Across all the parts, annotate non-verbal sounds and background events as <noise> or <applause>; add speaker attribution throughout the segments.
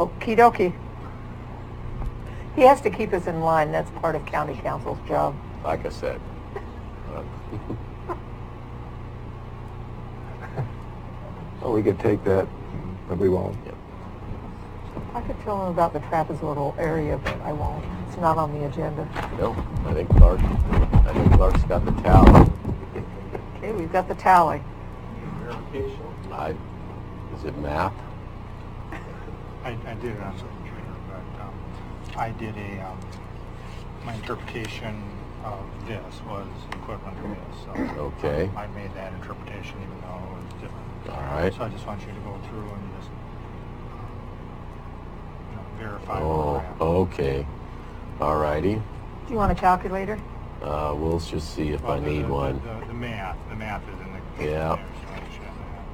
Speaker 1: Okie dokie. He has to keep us in line, that's part of county council's job.
Speaker 2: like I said. Uh,
Speaker 3: <laughs> Well, we could take that, but we won't.
Speaker 2: yeah.
Speaker 1: I could tell him about the trapezoidal area, but I won't. It's not on the agenda.
Speaker 2: No, I think Clark, I think Clark's got the towel.
Speaker 1: Okay, we've got the tally.
Speaker 2: I, is it math?
Speaker 4: I, I did it on the computer, but um, I did a, um, my interpretation of this was equivalent to this. so
Speaker 2: Okay.
Speaker 4: I made that interpretation even though it was different.
Speaker 2: All right.
Speaker 4: So I just want you to go through and just you know, verify
Speaker 2: Oh,
Speaker 4: where we're at.
Speaker 2: okay. All righty.
Speaker 1: Do you want a calculator?
Speaker 2: Uh, we'll just see if I
Speaker 4: Well, uh, the-
Speaker 2: need
Speaker 4: the-
Speaker 2: one.
Speaker 4: The, the math, the math is in the. computer
Speaker 2: Yeah.
Speaker 4: there, so I should have that.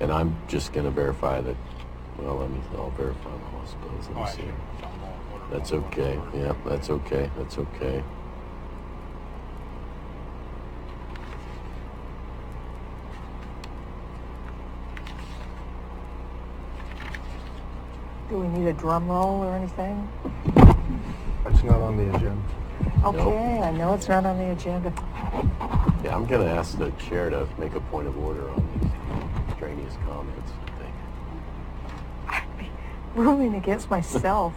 Speaker 2: And I'm just gonna verify that, well, let me, I'll verify my hospitals.
Speaker 4: Oh, I
Speaker 2: Let me
Speaker 4: should
Speaker 2: see.
Speaker 4: have done both order-
Speaker 2: That's
Speaker 4: both order
Speaker 2: okay.
Speaker 4: order.
Speaker 2: Yeah, that's okay. That's okay.
Speaker 1: Do we need a drum roll or anything?
Speaker 3: It's not on the agenda.
Speaker 1: Okay, I know it's not on the agenda.
Speaker 2: Yeah, I'm gonna ask the chair to make a point of order on these extraneous comments, I think.
Speaker 1: Ruling against myself.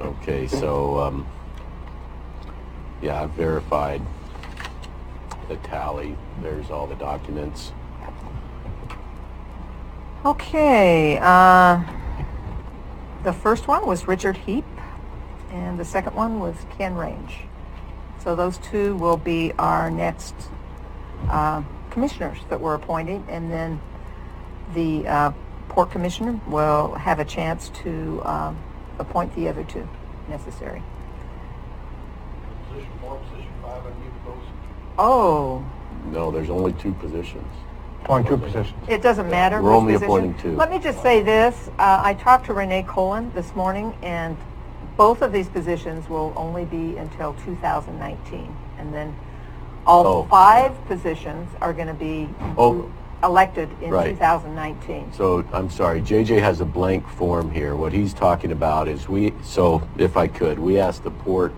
Speaker 2: Okay, so, um, yeah, I've verified the tally. There's all the documents.
Speaker 1: Okay, uh, the first one was Richard Heap, and the second one was Ken Range. So those two will be our next uh, commissioners that we're appointing, and then the uh, Port Commissioner will have a chance to um, appoint the other two necessary.
Speaker 4: Position four, position five, I need those.
Speaker 1: Oh,
Speaker 2: No, there's only two positions.
Speaker 3: On two positions.
Speaker 1: It doesn't matter.
Speaker 2: We're
Speaker 1: which
Speaker 2: only
Speaker 1: position.
Speaker 2: appointing two.
Speaker 1: Let me just say this, uh, I talked to Renee Colon this morning, and both of these positions will only be until 2019. And then all
Speaker 2: Oh.
Speaker 1: five positions are going to be
Speaker 2: Oh.
Speaker 1: elected in
Speaker 2: Right.
Speaker 1: 2019.
Speaker 2: So, I'm sorry, JJ has a blank form here. What he's talking about is we, so if I could, we asked the port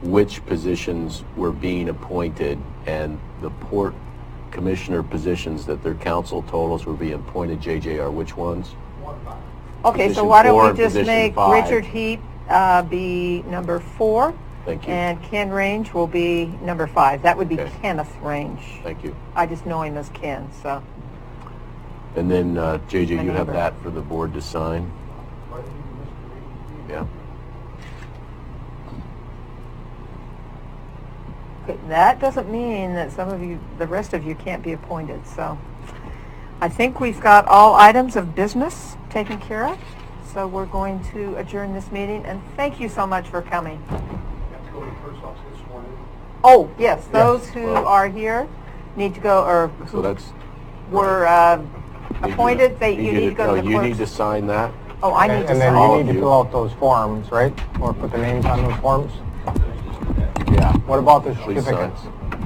Speaker 2: which positions were being appointed and the port commissioner positions that their council told us were being appointed, JJ, are which ones?
Speaker 1: Okay, so
Speaker 2: position
Speaker 1: why
Speaker 2: four
Speaker 1: don't
Speaker 2: and
Speaker 1: we just
Speaker 2: position
Speaker 1: make
Speaker 2: five.
Speaker 1: Richard Heap uh, be number four?
Speaker 2: Thank you.
Speaker 1: And Ken Range will be number five. That would be
Speaker 2: Okay.
Speaker 1: Kenneth Range.
Speaker 2: Thank you.
Speaker 1: I just know him as Ken, so.
Speaker 2: And then, uh, JJ, you have
Speaker 1: Maneuver.
Speaker 2: that for the board to sign? Yeah.
Speaker 1: Okay, That doesn't mean that some of you, the rest of you can't be appointed, so I think we've got all items of business taken care of. So we're going to adjourn this meeting, and thank you so much for coming.
Speaker 4: Have to go to the first office this morning.
Speaker 1: Oh, yes, those who
Speaker 2: Well-
Speaker 1: are here need to go, or
Speaker 2: So
Speaker 1: who
Speaker 2: that's...
Speaker 1: were uh, appointed, they, you need to go to
Speaker 2: No, you
Speaker 1: the
Speaker 2: need to
Speaker 1: clerk's.
Speaker 2: sign that.
Speaker 1: Oh, I need to
Speaker 3: And then
Speaker 2: All
Speaker 1: sign.
Speaker 3: you
Speaker 2: of
Speaker 3: need to
Speaker 2: you.
Speaker 3: fill out those forms, right? Or put the names on those forms?
Speaker 2: Yeah.
Speaker 3: What about the
Speaker 2: Please sign.
Speaker 3: certificates?